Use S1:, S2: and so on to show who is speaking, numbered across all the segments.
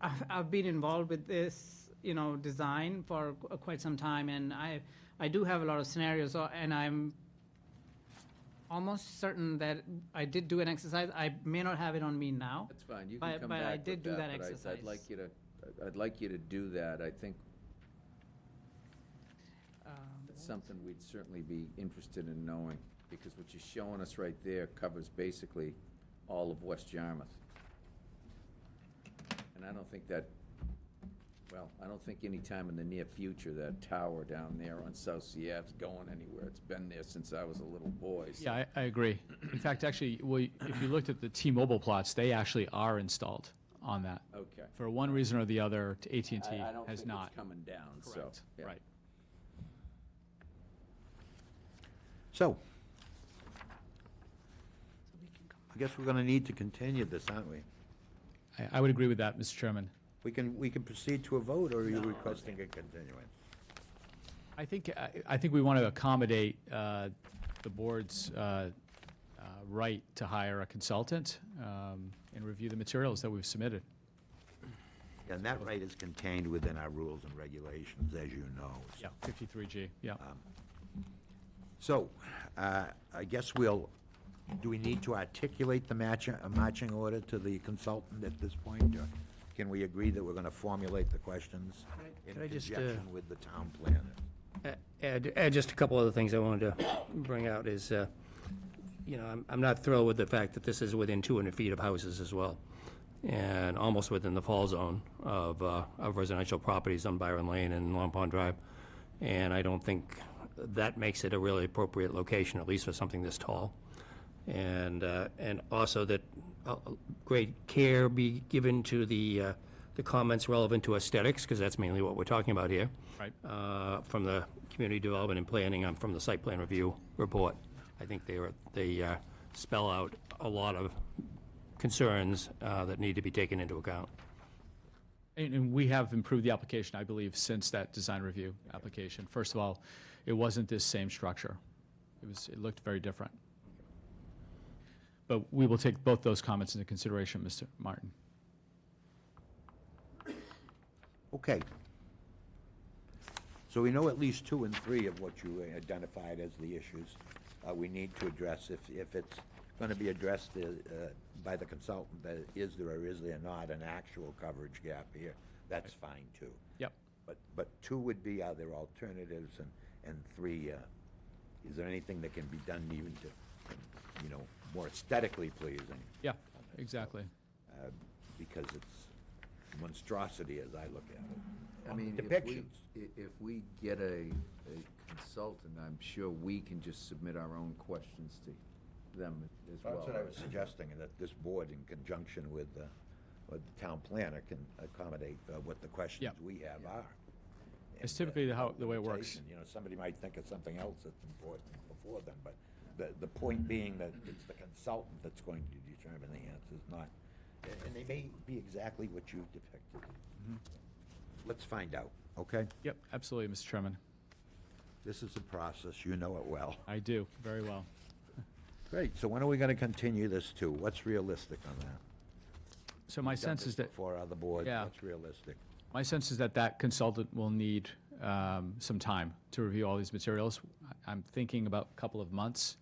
S1: I've, I've been involved with this, you know, design for qu- quite some time, and I, I do have a lot of scenarios, uh, and I'm almost certain that I did do an exercise. I may not have it on me now.
S2: That's fine, you
S1: But-
S2: can come
S1: but I
S2: back
S1: did
S2: with
S1: do
S2: that,
S1: that
S2: but I- I'd
S1: exercise.
S2: like you to, I'd like you to do that. I think
S1: Um,
S2: that's something we'd certainly be interested in knowing, because what you're showing us right there covers basically all of West Yarmouth. And I don't think that, well, I don't think any time in the near future that tower down there on South Sierra's going anywhere. It's been there since I was a little boy. so-
S3: Yeah, I, I agree. In fact, actually, well, if you looked at the T-Mobile plots, they actually are installed on that.
S2: Okay.
S3: For one reason or the other, t- AT&T
S2: I- I don't
S3: has
S2: think
S3: not.
S2: it's coming down, so.
S3: Correct,
S2: yeah.
S3: right.
S4: So, I guess we're going to need to continue this, aren't we?
S3: I, I would agree with that, Mr. Chairman.
S4: We can, we can proceed to a vote, or are you requesting a continuance?
S3: I think, I, I think we want to accommodate uh, the board's uh, uh, right to hire a consultant um, and review the materials that we've submitted.
S4: And that right is contained within our rules and regulations, as you know.
S3: Yeah, 53G, yeah.
S2: Um,
S4: So, uh, I guess we'll, do we need to articulate the matching, a matching order to the consultant at this point? or Can we agree that we're going to formulate the questions
S5: I-
S4: in
S5: can I just, uh,
S4: conjunction with the town planner?
S5: Add, add Uh, just a couple other things I wanted to bring out is, uh, you know, I'm, I'm not thrilled with the fact that this is within 200 feet of houses as well, and almost within the fall zone of, uh, of residential properties on Byron Lane and Long Pond Drive. And I don't think that makes it a really appropriate location, at least for something this tall. And, uh, and also that uh, great care be given to the, uh, the comments relevant to aesthetics, because that's mainly what we're talking about here
S3: Right.
S5: uh, from the community development and planning, um, from the site plan review report. I think they were, they uh, spell out a lot of concerns uh, that need to be taken into account.
S3: And, and we have improved the application, I believe, since that design review application. First of all, it wasn't this same structure. It was, it looked very different. But we will take both those comments into consideration, Mr. Martin.
S4: Okay. So we know at least two and three of what you identified as the issues uh, we need to address. If, if it's going to be addressed uh, uh, by the consultant, that is there or is there not an actual coverage gap here, that's fine too.
S3: Yep.
S4: But, but two would be, are there alternatives? And, and three, uh, is there anything that can be done even to, you know, more aesthetically pleasing?
S3: Yeah, exactly.
S4: uh, Because it's monstrosity as I look at it.
S2: I mean, if we,
S4: Um, Depictions.
S2: i- if we get a, a consultant, I'm sure we can just submit our own questions to them as well.
S4: That's
S3: uh,
S4: what I was suggesting, that this board in conjunction with, uh, with the town planner can accommodate uh, what the questions
S3: Yep.
S4: we have are.
S3: It's
S4: And, uh,
S3: typically the how- the way it works.
S4: limitation, You know, somebody might think of something else that's important before them, but the, the point being that it's the consultant that's going to determine the answers, not, and- and they may be exactly what you've depicted.
S3: Mm-hmm.
S4: Let's find out, okay?
S3: Yep, absolutely, Mr. Chairman.
S4: This is a process, you know it well.
S3: I do, very well.
S4: Great, so when are we gonna continue this to? What's realistic on that?
S3: So my
S4: done
S3: sense
S4: this
S3: is that,
S4: Before other boards,
S3: Yeah.
S4: that's realistic.
S3: my sense is that that consultant will need um, some time to review all these materials. I- I'm thinking about a couple of months,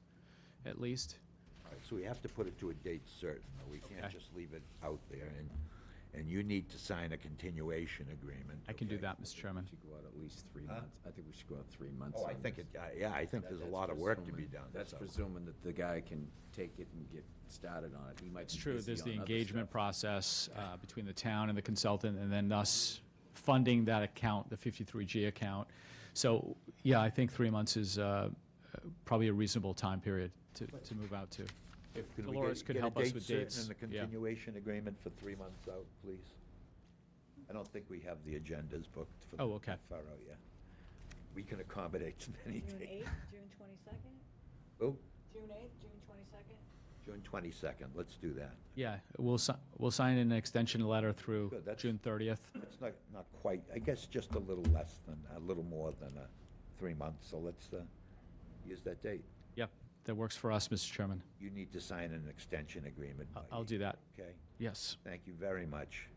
S3: at least.
S4: All right, So we have to put it to a date certain, though. we can't
S3: Okay.
S4: just leave it out there, and, and you need to sign a continuation agreement.
S3: I can do
S4: okay?
S3: that, Mr. Chairman.
S2: Should go out at least three
S4: Huh?
S2: months. I think we should go out three months.
S4: Oh, I
S2: on
S4: think
S2: this.
S4: it, yeah, yeah, I think
S2: That-
S4: there's a
S2: that's
S4: lot of work to be
S2: presuming-
S4: done.
S2: That's
S4: so-
S2: presuming that the guy can take it and get started on it. He might
S3: It's
S2: be
S3: true,
S2: busy
S3: there's the
S2: on other
S3: engagement
S2: stuff.
S3: process uh, between the town and the consultant, and then us funding that account, the 53G account. So, yeah, I think three months is uh, uh, probably a reasonable time period to to move out to. If
S4: Can we
S3: Dolores
S4: get-
S3: could
S4: get a
S3: help us
S4: date
S3: with
S4: certain
S3: dates.
S4: And the
S3: yeah.
S4: continuation agreement for three months out, please? I don't think we have the agendas booked for.
S3: Oh, okay.
S4: Far out, yeah. We can accommodate any
S6: June
S4: date.
S6: 8th, June 22nd?
S4: Oh,
S6: June 8th, June 22nd?
S4: June twenty-second, let's do that.
S3: Yeah, we'll, si- we'll sign an extension letter through
S4: Good, that's-
S3: June 30th.
S4: It's not, not quite, I guess just a little less than, a little more than uh, three months, so let's uh, use that date.
S3: Yep, that works for us, Mr. Chairman.
S4: You need to sign an extension agreement.
S3: I-
S4: by
S3: I'll do that.
S4: Okay,
S3: Yes.
S4: thank you very much.